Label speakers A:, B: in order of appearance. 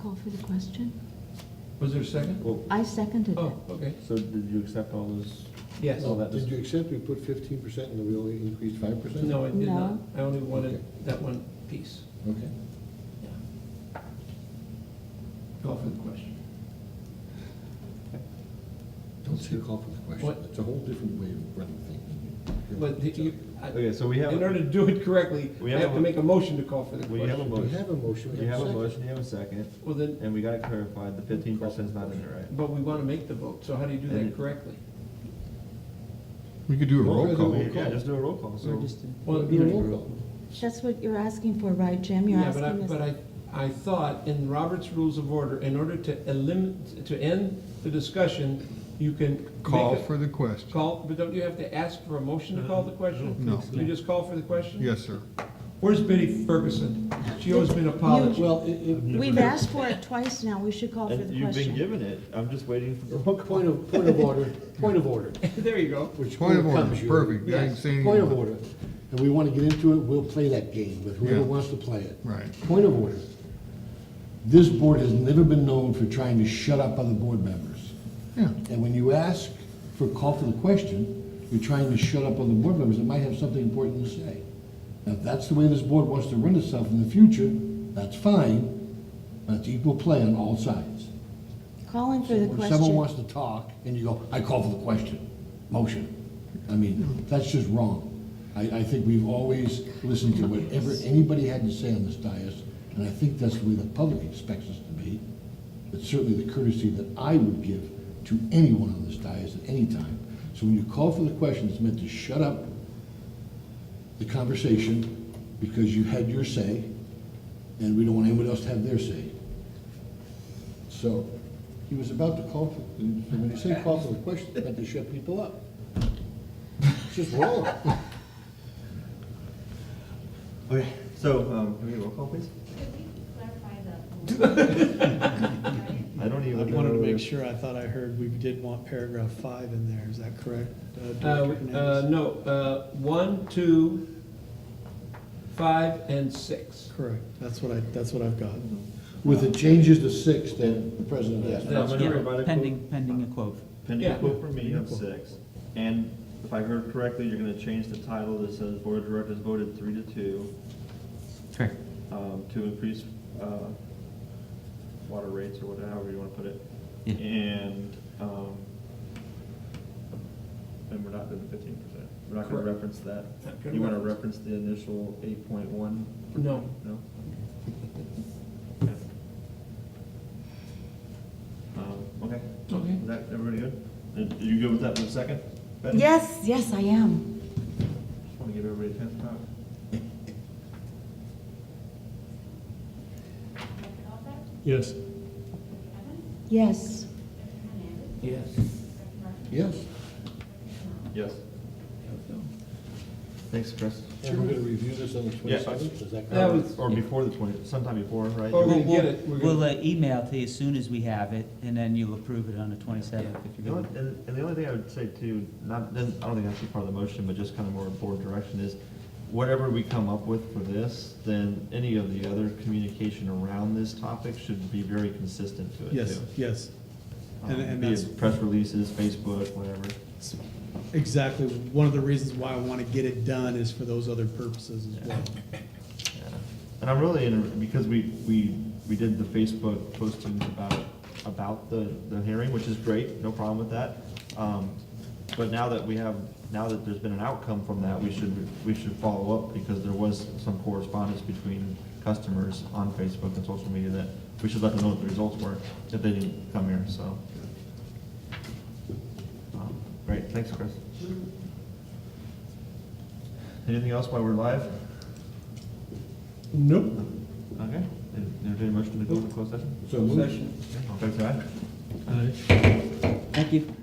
A: for the question?
B: Was there a second?
C: Well,
A: I seconded it.
B: Oh, okay.
C: so did you accept all those?
B: Yes.
C: All that
D: Did you
C: dis-
D: accept we put fifteen percent and we only increased five percent?
B: No, I did
A: No.
B: not. I only wanted
D: Okay.
B: that one piece.
D: Okay.
B: Yeah. Call for the question.
D: Don't say call for the
B: What?
D: question. It's a whole different way of running things.
B: But the- you, I-
C: Okay, so we have,
B: in order to
C: we
B: do it correctly,
C: We
B: I
C: have
B: have
C: a-
B: to make a motion to call for the
C: have a
B: question.
D: We
C: motion,
D: have a motion,
C: we have a motion, you have a second,
B: Well, then,
C: and we gotta clarify, the fifteen percent's not in there, right?
B: but we want to make the vote, so how do you do
C: And-
B: that correctly?
E: We could do a
D: Well,
E: roll
D: there's a
E: call.
D: roll
C: Yeah,
D: call.
C: just do a roll call, so.
B: Well,
D: Do a roll call.
A: That's what you're asking for, right, Jim? You're
B: Yeah, but I,
A: asking
B: but
A: us,
B: I, I thought in Robert's Rules of Order, in order to eliminate, to end the discussion, you can.
E: Call
B: make a-
E: for the
D: Oh,
E: question.
B: Call, but don't you have to ask for a motion to call the question?
E: No.
B: You just call for the question?
E: Yes, sir.
B: Where's Betty Ferguson? She owes me an apology.
D: Well, it,
A: we've asked for it twice now, we should call for the
C: And
A: question.
C: you've been given it, I'm just waiting for the roll
D: it,
C: call.
D: point of, point of order, point of order.
B: There you go.
D: which
E: Point of order,
D: overcomes you.
E: perfect. I didn't
B: Yes,
E: say anything.
D: Point of
E: about it.
D: order. And we want to get into it, we'll play that game with whoever
E: Yeah.
D: wants to play it.
E: Right.
D: Point of order. This board has never been known for trying to shut up other board members.
E: Yeah.
D: And when you ask for a call for the question, you're trying to shut up other board members that might have something important to say. Now, if that's the way this board wants to run itself in the future, that's fine, but it's equal play on all sides.
A: Calling for the
D: When someone
A: question.
D: wants to talk and you go, I call for the question, motion. I mean, that's just wrong. I, I think we've always listened to whatever anybody had to say on this dais, and I think that's the way the public expects us to be. It's certainly the courtesy that I would give to anyone on this dais at any time. So when you call for the question, it's meant to shut up the conversation because you had your say, and we don't want anyone else to have their say. So, he was about to call for, when you say call for the question, it's meant to shut people up. It's just wrong.
C: Okay, so, um, can we get a roll call, please?
F: Could we clarify the?
C: I don't
G: I
C: even.
G: wanted to
C: know
G: make
C: if-
G: sure, I thought I heard we did want paragraph five in there, is that correct? uh,
B: Uh,
G: Director
B: uh,
G: Hernandez?
B: no, uh, one, two, five, and six.
G: Correct, that's what I, that's what I've got.
D: With the changes to six, then the president asked.
C: I'm gonna
B: Yeah,
C: provide a quote-
H: Pending, pending a quote.
C: Pending a
B: Yeah.
C: quote from me of six, and if I heard correctly, you're gonna change the title that says Board of Directors voted three to two,
H: Correct.
C: um, to increase, uh, water rates or whatever, however you wanna put it.
H: Yeah.
C: And, um, and we're not doing the fifteen percent, we're not gonna
B: Correct.
C: reference that.
B: Not gonna
C: You wanna
B: reference.
C: reference the initial eight point one?
B: No.
C: No? Okay. Um, okay.
B: Okay.
C: Is that, everybody good? Are you good with that for a second? Betty?
A: Yes, yes, I am.
C: Just wanna give everybody a chance to talk.
G: Yes.
A: Yes.
B: Yes.
D: Yes.
C: Yes. Thanks, Chris.
D: And we're gonna review this on the
C: Yeah.
D: twenty-seventh, is that correct?
B: That was,
C: Or before the twenty, sometime before, right?
B: Or- Oh, We're
C: You-
B: gonna
H: We'll-
B: get it, we're gonna-
H: We'll uh, email to you as soon as we have it, and then you'll approve it on the twenty-seventh if
C: you
H: you're
C: know
H: good.
C: what, and, and the only thing I would say too, not, then, I don't think that's part of the motion, but just kind of more board direction is, whatever we come up with for this, then any of the other communication around this topic should be very consistent to it too.
G: Yes, yes.
C: Um,
G: And- and
C: be it
G: that's-
C: Press releases, Facebook, whatever.
G: It's Exactly, one of the reasons why I want to get it done is for those other purposes as well.
C: Yeah. And I'm really, in- because we, we, we did the Facebook postings about, about the, the hearing, which is great, no problem with that. Um, But now that we have, now that there's been an outcome from that, we should, we should follow up, because there was some correspondence between customers on Facebook and social media that we should let them know what the results were, if they didn't come here, so. Um, Great, thanks, Chris. Anything else while we're live?
B: nope.
C: Okay, entertain a motion to go into closed session?
D: So moved.
B: Session.
C: All in favor, say aye.
H: Thank you.